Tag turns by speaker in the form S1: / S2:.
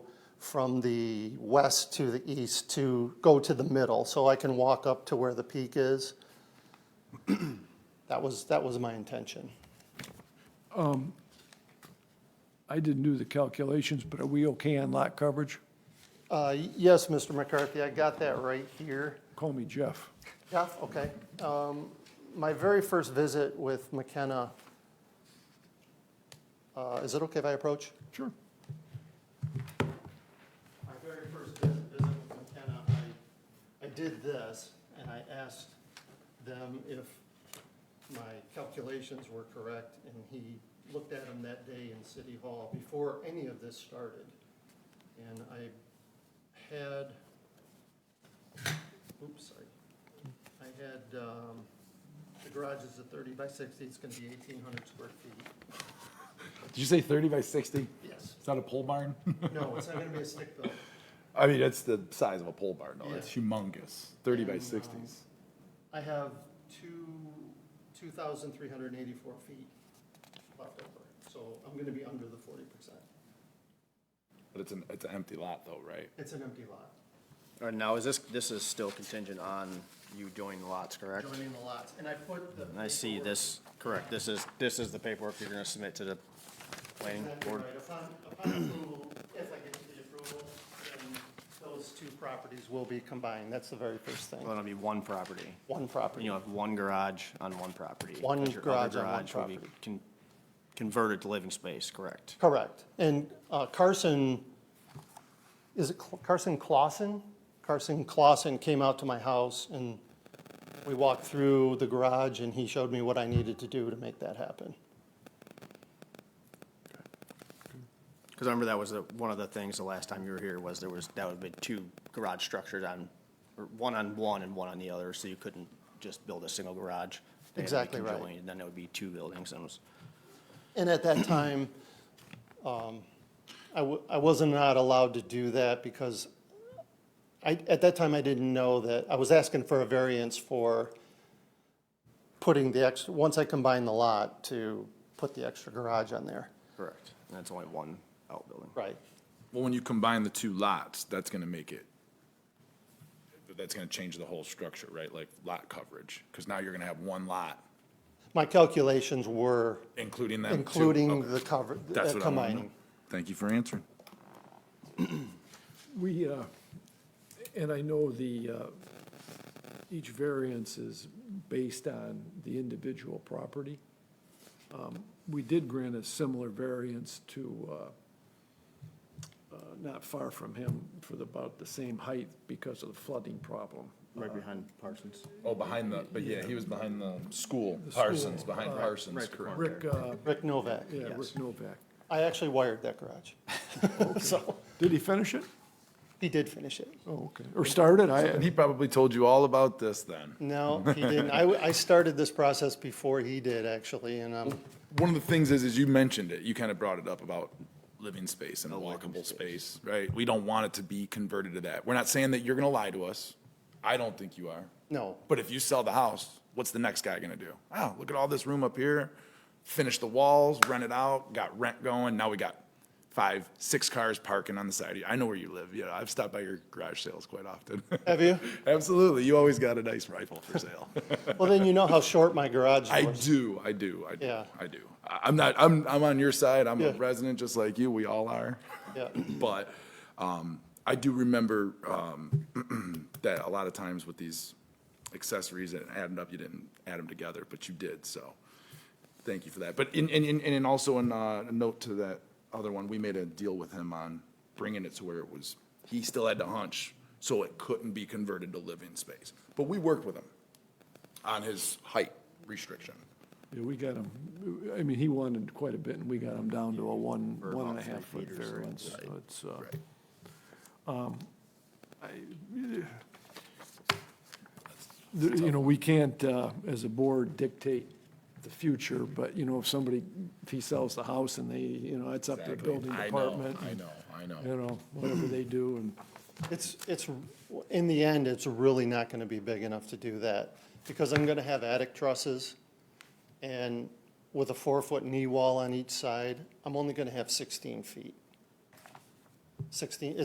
S1: from the west to the east to go to the middle, so I can walk up to where the peak is. That was, that was my intention.
S2: I didn't do the calculations, but are we okay on lot coverage?
S1: Uh, Yes, Mr. McCarthy, I got that right here.
S2: Call me Jeff.
S1: Yeah, okay. Um, My very first visit with McKenna, uh, is it okay if I approach?
S2: Sure.
S1: My very first visit visit with McKenna, I, I did this, and I asked them if my calculations were correct, and he looked at them that day in City Hall before any of this started. And I had, oops, I, I had, um, the garage is a thirty by sixty, it's gonna be eighteen hundred square feet.
S3: Did you say thirty by sixty?
S1: Yes,
S3: It's not a pole barn?
S1: no, it's not gonna be a stick built.
S3: I mean, that's the size of a pole barn, though.
S1: Yeah.
S3: That's humongous. Thirty by
S1: And, um,
S3: sixties.
S1: I have two, two thousand three hundred and eighty-four feet left over, so I'm gonna be under the forty percent.
S3: But it's an, it's an empty lot though, right?
S1: It's an empty lot.
S4: All right, now, is this, this is still contingent on you joining lots, correct?
S1: Joining the lots, and I put the.
S4: And I see
S1: paperwork-
S4: this, correct, this is, this is the paperwork you're gonna submit to the planning
S1: Exactly
S4: board?
S1: right. Upon, upon approval, if I get to the approval, then those two properties will be combined, that's the very first thing.
S4: Well, it'll be one property,
S1: One
S4: and
S1: property.
S4: you'll have one garage on one property.
S1: One
S4: but your other
S1: garage on one
S4: will be
S1: property.
S4: con- Converted to living space, correct?
S1: Correct. And uh, Carson, is it Cl- Carson Clausen? Carson Clausen came out to my house and we walked through the garage and he showed me what I needed to do to make that happen.
S4: Because I remember that was the- one of the things the last time you were here was there was, that would be two garage structures on, or one on one and one on the other, so you couldn't just build a single garage. They had to be
S1: Exactly right.
S4: conjoined, And then it would be two buildings, and it was,
S1: And at that time, um, I wa- I was not allowed to do that because I, at that time, I didn't know that, I was asking for a variance for putting the extra, once I combined the lot, to put the extra garage on there.
S4: correct, and that's only one outbuilding.
S1: Right.
S3: Well, when you combine the two lots, that's gonna make it, that's gonna change the whole structure, right? Like lot coverage, because now you're gonna have one lot,
S1: My calculations were
S3: including them. two.
S1: including
S3: Okay.
S1: the cover,
S3: That's
S1: uh,
S3: what I wanna know.
S1: combining.
S3: Thank you for answering.
S2: We, uh, and I know the, uh, each variance is based on the individual property. Um, We did grant a similar variance to, uh, uh, not far from him, for the- about the same height because of the flooding problem.
S4: Right behind Parsons.
S3: Oh, behind the, but yeah, he was behind the school,
S2: school,
S3: Parsons, behind Parsons,
S4: right the
S3: correct.
S2: Rick, uh,
S1: Rick Novak.
S2: yeah, Rick
S4: Yes.
S2: Novak.
S1: I actually wired that garage. So
S2: Did he finish it?
S1: he did finish it.
S2: Oh, okay. Or started?
S3: And
S2: I,
S3: he probably told you all about this then.
S1: No, he didn't. I, w- I started this process before he did, actually, and um,
S3: One of the things is, is you mentioned it, you kind of brought it up about living space and walkable space, right? We don't want it to be converted to that. We're not saying that you're gonna lie to us. I don't think you are.
S1: no,
S3: But if you sell the house, what's the next guy gonna do? Oh, look at all this room up here, finish the walls, rent it out, got rent going, now we got five, six cars parking on the side of you. I know where you live, you know, I've stopped by your garage sales quite often.
S1: have you?
S3: Absolutely, you always got a nice rifle for sale.
S1: Well, then you know how short my garage
S3: I
S1: was.
S3: do, I do, I do,
S1: Yeah.
S3: I do. I- I'm not, I'm, I'm on your side, I'm a
S1: Yeah.
S3: resident just like you, we all are.
S1: Yeah.
S3: But, um, I do remember, um, that a lot of times with these accessories that added up, you didn't add them together, but you did, so. Thank you for that. But in, in, in, and also in, uh, a note to that other one, we made a deal with him on bringing it to where it was, he still had to hunch, so it couldn't be converted to living space. But we worked with him on his height restriction.
S2: yeah, we got him, I mean, he wanted quite a bit, and we got him down to a one,
S4: Or
S2: one
S4: about
S2: and a half
S4: three
S2: foot
S4: feet or so,
S2: variance.
S4: right.
S2: So It's, uh, um,
S3: Right.
S2: th- you know, we can't, uh, as a board, dictate the future, but, you know, if somebody, if he sells the house and they, you know, it's up to the building
S3: I know,
S2: department.
S3: I know, I know.
S2: You know, whatever they do, and
S1: It's, it's, in the end, it's really not gonna be big enough to do that, because I'm gonna have attic trusses, and with a four-foot knee wall on each side, I'm only gonna have sixteen feet. Sixteen,